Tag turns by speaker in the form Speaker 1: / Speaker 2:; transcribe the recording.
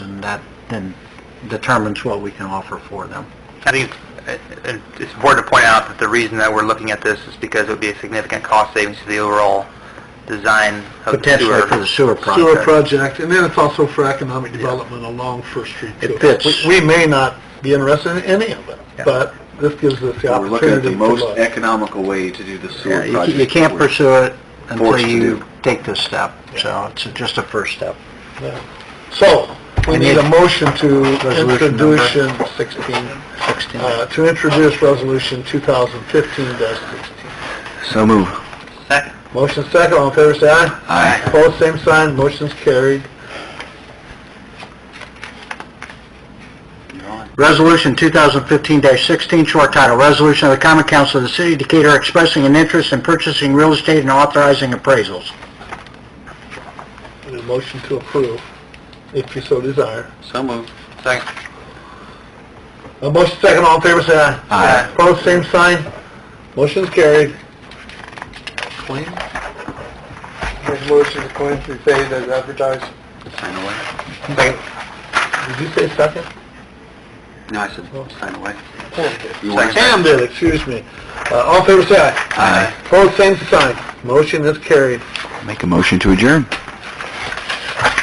Speaker 1: and that then determines what we can offer for them.
Speaker 2: I think it's- it- it's important to point out that the reason that we're looking at this is because it would be a significant cost savings to the overall design of the
Speaker 1: Potentially for the
Speaker 2: sewer.
Speaker 1: sewer
Speaker 3: sewer
Speaker 1: project.
Speaker 3: project, and then it's also for economic development along First Street too.
Speaker 1: It fits.
Speaker 3: We- We may not be interested in any of it,
Speaker 2: Yeah.
Speaker 3: but this gives us the
Speaker 4: We're looking at the
Speaker 3: opportunity to
Speaker 4: most
Speaker 3: look.
Speaker 4: economical way to do the
Speaker 1: Yeah,
Speaker 4: sewer
Speaker 1: You
Speaker 4: project.
Speaker 1: you can't
Speaker 4: We're-
Speaker 1: pursue it until
Speaker 4: forced to
Speaker 1: you
Speaker 4: do.
Speaker 1: take this step, so it's just a first step.
Speaker 3: Yeah. So, we
Speaker 1: And
Speaker 3: need
Speaker 1: it-
Speaker 3: a motion to
Speaker 1: Resolution number-
Speaker 3: introduce in 16,
Speaker 1: 16.
Speaker 3: uh, to introduce resolution 2015-16.
Speaker 4: So move.
Speaker 2: Second.
Speaker 3: Motion second, all in favor, say aye.
Speaker 4: Aye.
Speaker 3: Opposed, same sign, motion's carried.
Speaker 1: Resolution 2015-16, short title, Resolution of the Common Council of the City of Decatur expressing an interest in purchasing real estate and authorizing appraisals.
Speaker 3: Need a motion to approve, if you so desire.
Speaker 4: So move.
Speaker 2: Second.
Speaker 3: A motion second, all in favor, say aye.
Speaker 4: Aye.
Speaker 3: Opposed, same sign. Motion's carried. Claim? Resolution to claim to be paid as advertised.
Speaker 4: Sign away.
Speaker 3: Did you say second?
Speaker 4: No, I said, sign away.
Speaker 3: Pam did.
Speaker 4: You want to-
Speaker 3: Pam did, excuse me. Uh, all in favor, say aye.
Speaker 4: Aye.
Speaker 3: Opposed, same sign. Motion is carried.
Speaker 4: Make a motion to adjourn.